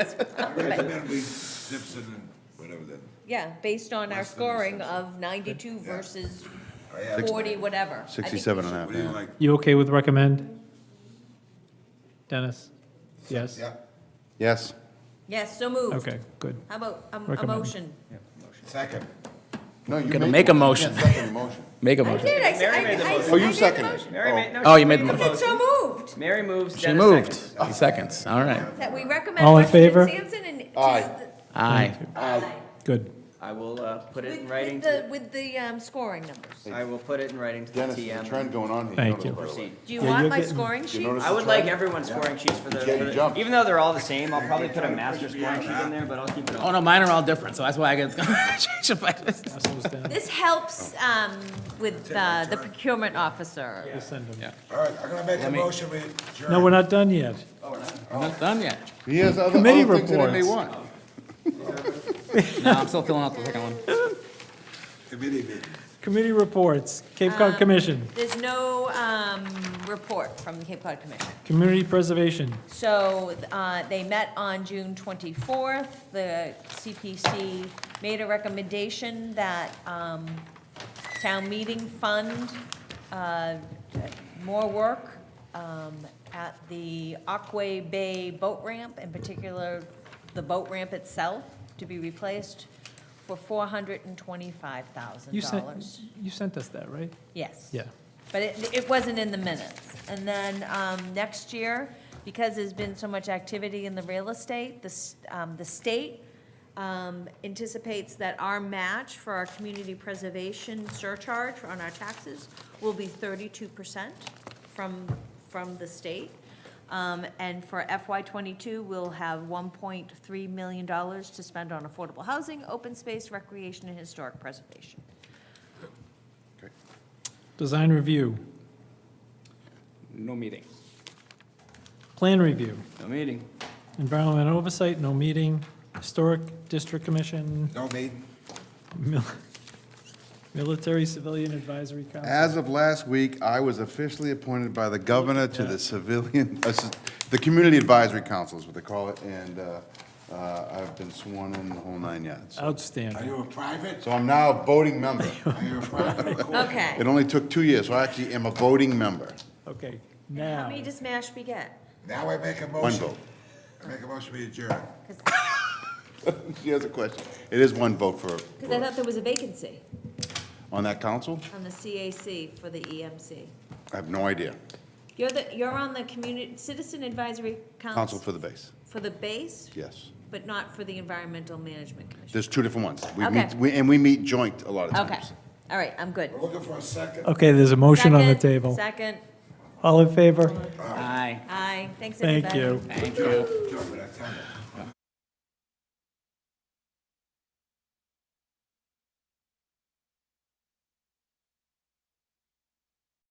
I Right. recommend we Simpson and whatever that, Yeah, based on our Less than scoring six. of ninety-two versus Oh, I have, forty, whatever. I think we 67 and a should- half. what do you like? You okay with recommend? Dennis? Yes? Yeah, Yes, Yes, so moved. Okay, good. How about um, a, a Recommend. motion? second. no, you Gonna made make the a motion. motion. You can't second the motion. Make a I motion. did, I, s- I, I. Oh, I you did the seconded motion. it. Mary made, no, Oh, she you made the I mo- said so moved, Mary moves, She Dennis moved. seconds. He seconds. All right. that we recommend All in Washington favor? and Sampson and. to Aye. Aye. the- Good. I will uh, put With, it in writing, with to the, with the, um, scoring numbers. the- I will put it in writing to the Dennis, there's a trend TM. going on here. Thank notice, you. by the way. Proceed. Do you Yeah, want you're my getting- scoring sheet? notice- I would like everyone's scoring sheets for the, Yeah, you for the- jumped. even though they're all the same, I'll probably put a master scoring sheet in there, but I'll keep it Oh on. no, mine are all different, so that's why I get change it back. This helps, um, with, uh, the procurement officer. Just send them. All right, I'm gonna make a me- motion, we No, we're adjourn. not done yet. I'm not done yet. He has other, Committee other things that he may reports. want. No, I'm still filling out the second one. Committee meeting. Committee reports, Cape Cod Commission, There's no, um, report from the Cape Cod Commission. Community Preservation. So uh, they met on June 24th. The CPC made a recommendation that um, town meeting fund uh, more work um, at the Aquay Bay boat ramp, in particular, the boat ramp itself, to be replaced for You sent, $425,000. you sent us that, right? Yes. Yeah. But it, it wasn't in the minutes. And then, um, next year, because there's been so much activity in the real estate, the, s- um, the state, um, anticipates that our match for our community preservation surcharge on our taxes will be thirty-two percent from, from the state. Um, and for FY twenty-two, we'll have one point three million dollars to spend on affordable housing, open space, recreation, and historic preservation. Design Review, Oh. No meeting. Plan Review, No meeting. Environmental Oversight, no meeting, Historic District Commission, No meeting. Mil- Military Civilian Advisory Council. As of last week, I was officially appointed by the governor to the civilian, uh, s- the Community Advisory Council is what they call it, and uh, uh, I've been sworn in the whole nine Uh, yards. Are Outstanding. you a private? So I'm now a voting member. Are you a private? Okay. It only took two years, so I actually am a voting member. Okay, How now, many does Mashpee get? Now I make a One motion. vote. I make a motion, we adjourn. She has a question. It is one vote for, Because I thought there was a vacancy on that council? on the CAC for the EMC. I have no idea. You're the, you're on the community, Citizen Advisory Council Council for the base, for the base, yes. but not for the Environmental Management Commission. There's two different ones. We Okay. meet, we- and we meet joint a lot of Okay, times. all right, I'm good. We're looking for a second. okay, there's a motion on the Second, table. Second, All in favor? Aye. aye, thanks everybody. Thank you. Adjourn, adjourn, but I tell you.